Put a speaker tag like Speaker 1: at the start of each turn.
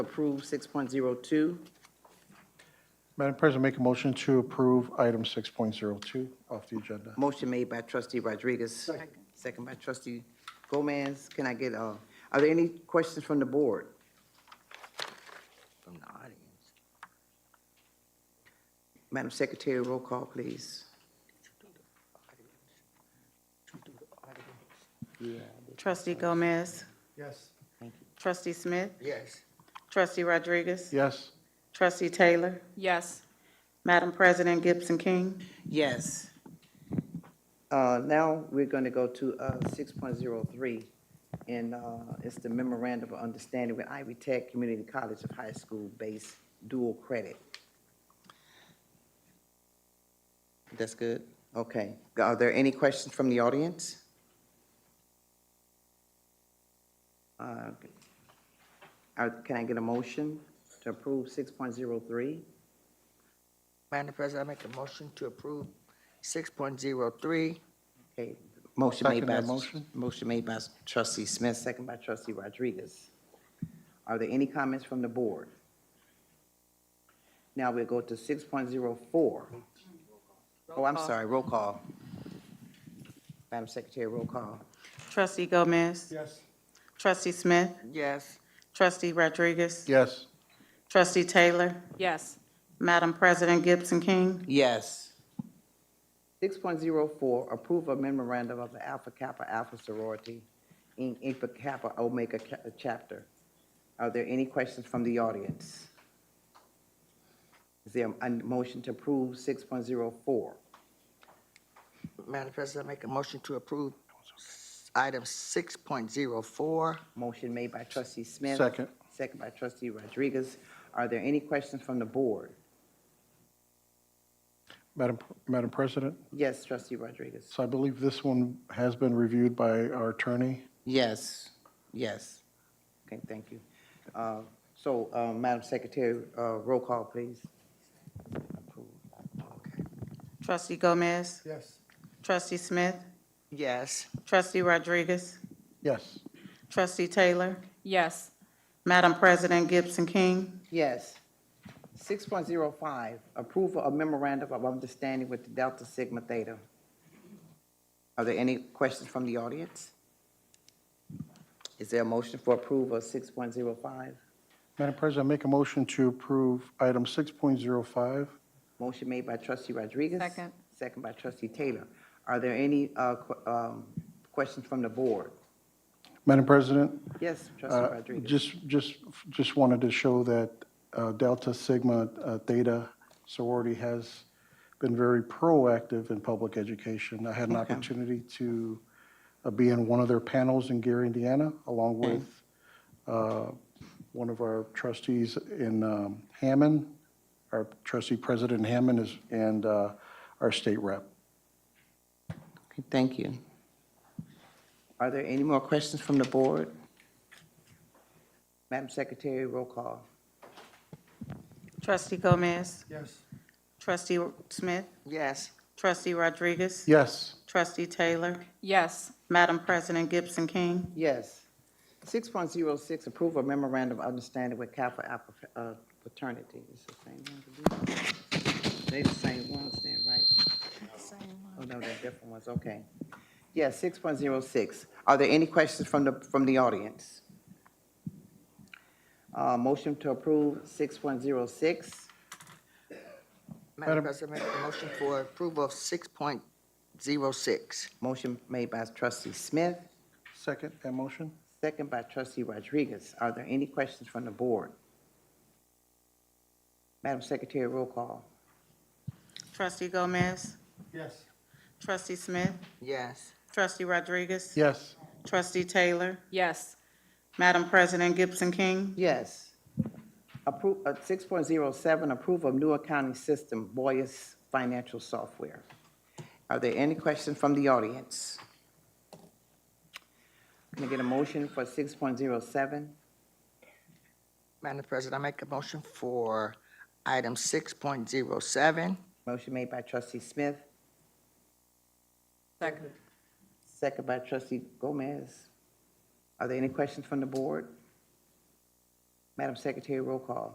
Speaker 1: Approve 6.02.
Speaker 2: Madam President, make a motion to approve item 6.02 off the agenda.
Speaker 1: Motion made by trustee Rodriguez. Second. by trustee Gomez. Can I get, uh, are there any questions from the board? From the audience? Madam Secretary, roll call, please.
Speaker 3: Trustee Gomez.
Speaker 2: Yes.
Speaker 3: Trustee Smith.
Speaker 1: Yes.
Speaker 3: Trustee Rodriguez.
Speaker 2: Yes.
Speaker 3: Trustee Taylor.
Speaker 4: Yes.
Speaker 3: Madam President Gibson King.
Speaker 1: Yes. Uh, now, we're gonna go to, uh, six point zero three, and, uh, it's the memorandum of understanding with Ivy Tech Community College of High School-based dual credit. That's good? Okay. Are there any questions from the audience? Uh, uh, can I get a motion to approve six point zero three?
Speaker 5: Madam President, I make a motion to approve six point zero three.
Speaker 1: Okay, motion made
Speaker 2: Second
Speaker 1: by,
Speaker 2: that motion.
Speaker 1: motion made by trustee Smith, second by trustee Rodriguez. Are there any comments from the board? Now we'll go to six point zero four. Oh, I'm sorry, roll call. Madam Secretary, roll call.
Speaker 3: Trustee Gomez.
Speaker 2: Yes.
Speaker 3: Trustee Smith.
Speaker 5: Yes.
Speaker 3: Trustee Rodriguez.
Speaker 2: Yes.
Speaker 3: Trustee Taylor.
Speaker 4: Yes.
Speaker 3: Madam President Gibson King.
Speaker 1: Yes. Six point zero four, approve a memorandum of the Alpha Kappa Alpha Sorority in Alpha Kappa Omega Ca- Chapter. Are there any questions from the audience? Is there a motion to approve six point zero four?
Speaker 5: Madam President, I make a motion to approve s- item six point zero four.
Speaker 1: Motion made by trustee Smith.
Speaker 2: Second.
Speaker 1: Second by trustee Rodriguez. Are there any questions from the board?
Speaker 2: Madam, Madam President,
Speaker 1: Yes, trustee Rodriguez.
Speaker 2: so I believe this one has been reviewed by our attorney.
Speaker 1: Yes, yes. Okay, thank you. Uh, So, uh, Madam Secretary, uh, roll call, please.
Speaker 3: Trustee Gomez.
Speaker 2: Yes.
Speaker 3: Trustee Smith.
Speaker 5: Yes.
Speaker 3: Trustee Rodriguez.
Speaker 2: Yes.
Speaker 3: Trustee Taylor.
Speaker 4: Yes.
Speaker 3: Madam President Gibson King.
Speaker 1: Yes. 6.05, approval of memorandum of understanding with the Delta Sigma Theta. Are there any questions from the audience? Is there a motion for approval of 6.05?
Speaker 2: Madam President, make a motion to approve item 6.05.
Speaker 1: Motion made by trustee Rodriguez.
Speaker 4: Second.
Speaker 1: Second by trustee Taylor. Are there any uh, que- um, questions from the board?
Speaker 2: Madam President,
Speaker 1: Yes,
Speaker 2: Uh,
Speaker 1: trustee Rodriguez.
Speaker 2: Just, just, just wanted to show that uh, Delta Sigma uh, Theta sorority has been very proactive in public education. I had an opportunity to uh, be in one of their panels in Gary, Indiana, along with uh, one of our trustees in um, Hammond, our trustee president in Hammond is, and uh, our state rep.
Speaker 1: Okay, Thank you. Are there any more questions from the board? Madam Secretary, roll call.
Speaker 3: Trustee Gomez.
Speaker 2: Yes.
Speaker 3: Trustee Smith.
Speaker 5: Yes.
Speaker 3: Trustee Rodriguez.
Speaker 2: Yes.
Speaker 3: Trustee Taylor.
Speaker 4: Yes.
Speaker 3: Madam President Gibson King.
Speaker 1: Yes. 6.06, approve a memorandum of understanding with Kappa Alpha uh, fraternity. It's the same one. They're the same ones then, right? Oh, no, they're different ones, okay. Yes, 6.06. Are there any questions from the, from the audience? Uh, Motion to approve 6.06.
Speaker 5: Madam
Speaker 2: Madam-
Speaker 5: President, I make a motion for approval of six point zero six.
Speaker 1: Motion made by trustee Smith,
Speaker 2: Second, that motion?
Speaker 1: second by trustee Rodriguez. Are there any questions from the board? Madam Secretary, roll call.
Speaker 3: Trustee Gomez.
Speaker 2: Yes.
Speaker 3: Trustee Smith.
Speaker 5: Yes.
Speaker 3: Trustee Rodriguez.
Speaker 2: Yes.
Speaker 3: Trustee Taylor.
Speaker 4: Yes.
Speaker 3: Madam President Gibson King.
Speaker 1: Yes. Approve, uh, six point zero seven, approve of new accounting system, Boyus Financial Software. Are there any questions from the audience? Can I get a motion for six point zero seven?
Speaker 5: Madam President, I make a motion for item six point zero seven.
Speaker 1: Motion made by trustee Smith,
Speaker 4: Second.
Speaker 1: second by trustee Gomez. Are there any questions from the board?
Speaker 6: Madam Secretary, roll call.